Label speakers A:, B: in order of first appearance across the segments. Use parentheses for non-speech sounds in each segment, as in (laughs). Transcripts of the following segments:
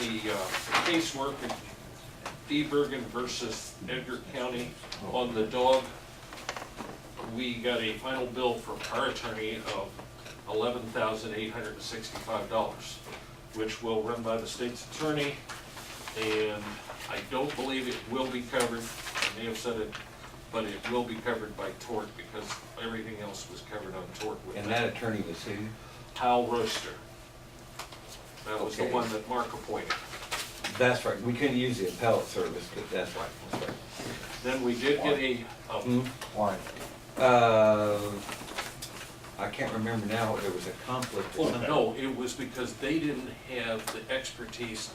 A: the uh, casework in Debergen versus Edgar County on the dog. We got a final bill from our attorney of eleven thousand eight hundred and sixty-five dollars, which will run by the state's attorney. And I don't believe it will be covered, I may have said it, but it will be covered by tort because everything else was covered on tort with
B: And that attorney was who?
A: Hal Roaster. That was the
B: Okay.
A: one that Mark appointed.
B: That's right, we couldn't use the appellate service, but that's right, that's right.
A: Then we did get a, um,
B: Hmm?
C: Why?
B: Uh, I can't remember now, there was a conflict or
A: oh,
B: something.
A: no, it was because they didn't have the expertise.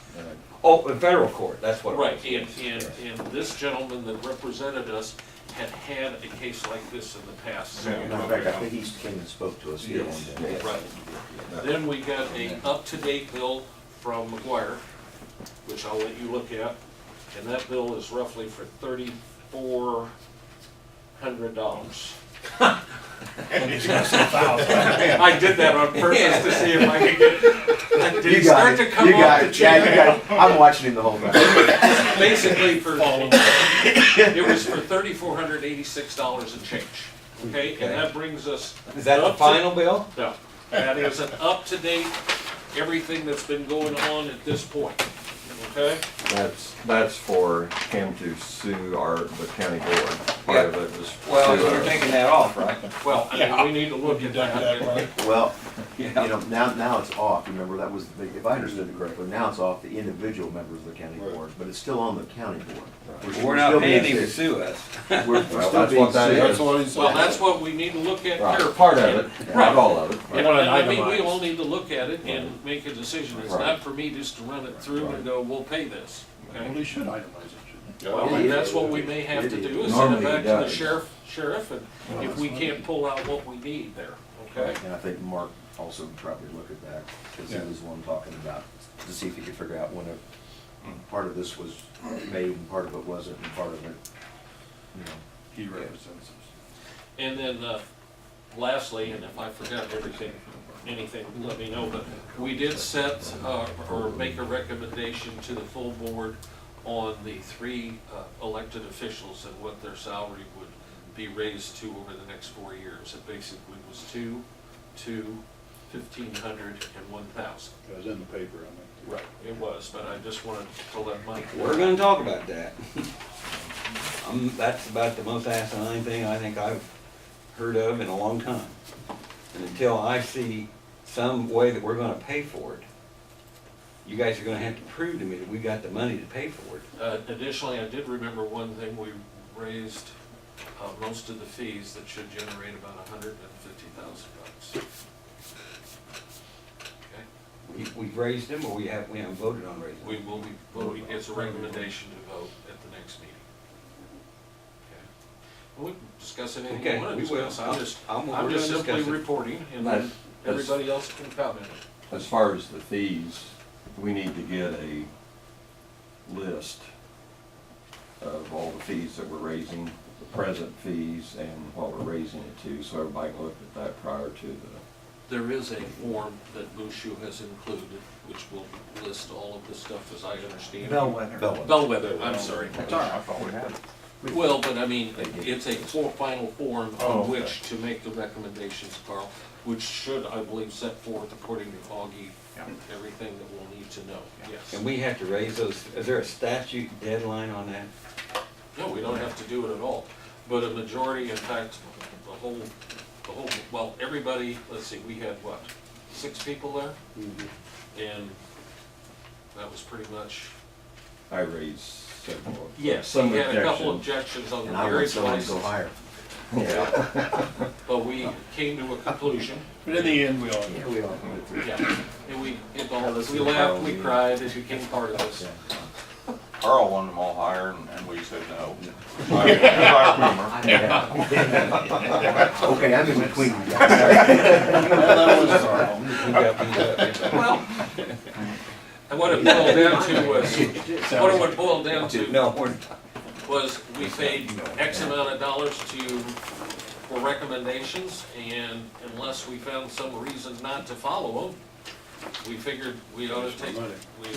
B: Oh, in federal court, that's what it was.
A: Right, and, and, and this gentleman that represented us had had a case like this in the past. so-
C: Matter of fact, I think he came and spoke to us here one day.
B: Yes.
A: Right. Then we got a up-to-date bill from McGuire, which I'll let you look at, and that bill is roughly for thirty-four hundred dollars.
D: (laughs)
A: I did that on purpose to see if I could get, did
C: You
A: he
C: got
A: start
C: it,
A: to
C: you
A: come off
C: got
A: the
C: it, yeah, you
A: chain?
C: got it. I'm watching him the whole time.
A: Basically for, it was for thirty-four hundred eighty-six dollars and change, okay? And that brings us.
B: Is that the
A: up to-
B: final bill?
A: No, that is an up-to-date, everything that's been going on at this point, okay?
E: That's, that's for him to sue our, the county board. Part of it was.
B: Well,
E: to,
B: you're
E: uh,
B: taking that off, right?
A: Well, I mean, we need to look at that.
C: (laughs) Well, you
B: Yeah.
C: know, now, now it's off, remember, that was, the- if I understood it correctly, now it's off the individual members of the county board, but it's still on the county board.
B: We're not
C: still
B: paying
C: being
B: him to
C: sued.
B: sue us.
C: We're
B: (laughs)
C: we're
E: Well,
C: still
E: that's what
C: being
E: that
C: sued.
E: is.
A: Well, that's what we need to look at
E: Right,
A: here.
E: part of it, not all of
A: And,
E: it.
A: and I mean, we all need to look at it and make a decision. It's
E: Right.
A: not for me just to run it through and go, we'll pay this.
D: Well,
A: okay?
D: they should itemize it, shouldn't
A: Well, and that's what we may have to do, is send it
E: Normally
A: back
E: it
A: to the
E: does.
A: sheriff, sheriff, and if we can't pull out what we need there, okay?
C: And I think Mark also probably looked at that, because he
D: Yeah.
C: was the one talking about, to see if he could figure out when it, part of this was made and part of it wasn't, and part of it, you know.
D: he? He represents us.
A: And then uh, lastly, and if I forgot everything, anything, let me know, but we did set uh, or make a recommendation to the full board on the three uh, elected officials and what their salary would be raised to over the next four years. It basically was two, two, fifteen hundred, and one thousand.
D: It was in the paper, I mean.
A: Right. It was, but I just wanted to let Mike.
B: We're gonna talk about that. (laughs) Um, that's about the most asinine thing I think I've heard of in a long time. And until I see some way that we're gonna pay for it, you guys are gonna have to prove to me that we got the money to pay for it.
A: Uh, Additionally, I did remember one thing, we raised uh, most of the fees that should generate about a hundred and fifty thousand bucks. Okay,
B: We, we've raised them or we have, we haven't voted on raising
A: We
B: them?
A: will be, voting. it's a recommendation to vote at the next meeting. Okay, Well, we can discuss anything
B: Okay,
A: you want to
B: we will.
A: discuss, I'm just,
B: I'm- we're
A: I'm just
B: gonna
A: simply
B: discuss it.
A: reporting, and
E: That's-
A: then
E: that's-
A: everybody else can comment.
E: As far as the fees, we need to get a list of all the fees that we're raising, the present fees and what we're raising it to, so everybody can look at that prior to the,
A: There is a form that Bushu has included, which will list all of the stuff as I understand. it.
C: Bellwether.
A: Bellwether, I'm sorry.
D: right, I
A: Well, but I mean, it's a for- final form
E: Oh,
A: on
E: okay.
A: which to make the recommendations, Carl, which should, I believe, set forth according to Augie, everything that we'll need to know, yes.
B: And we have to raise those, is there a statute deadline on that?
A: No, we don't have to do it at all, but a majority, in fact, the whole, the whole, well, everybody, let's see, we had what, six people there? And that was pretty much,
E: I raised several.
A: yes,
E: some
A: we had a couple
E: objections.
A: objections on the
C: And I want
A: marriage
C: someone to go
A: license,
C: higher.
E: Yeah.
A: but we came to a conclusion.
D: But in the end, we all.
C: Yeah, we all.
A: Yeah, and we, it all, we laughed, we cried, it became part of us.
F: Earl wanted them all higher, and- and we said no. If I- if I remember.
C: Okay, I'm in between you guys.
B: We got these, uh,
A: Well. And what it boiled down to
B: (laughs)
A: was, what it would boil down to
B: No, we're not.
A: was we paid X amount of dollars to, for recommendations, and unless we found some reason not to follow them, we figured we ought to take, we